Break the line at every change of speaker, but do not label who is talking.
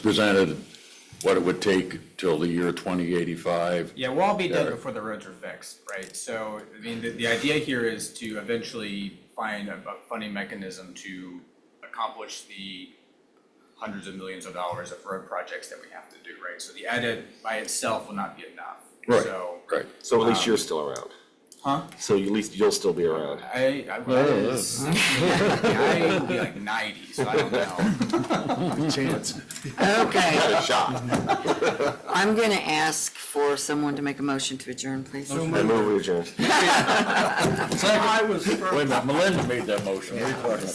presented what it would take till the year 2085.
Yeah, we'll all be
Yeah.
dead before the roads are fixed, right? So, I mean, the, the idea here is to eventually find a, a funding mechanism to accomplish the hundreds of millions of dollars of road projects that we have to do, right? So the edit by itself will not be enough.
Right,
So,
Right.
So at least you're still around.
huh?
So you- at least you'll still be around.
I, I was, I will be like ninety, so I don't know.
Chance.
Okay,
Good shot.
I'm going to ask for someone to make a motion to adjourn, please.
I move we adjourn.
Wait a minute, Melinda made that motion. What are you talking about?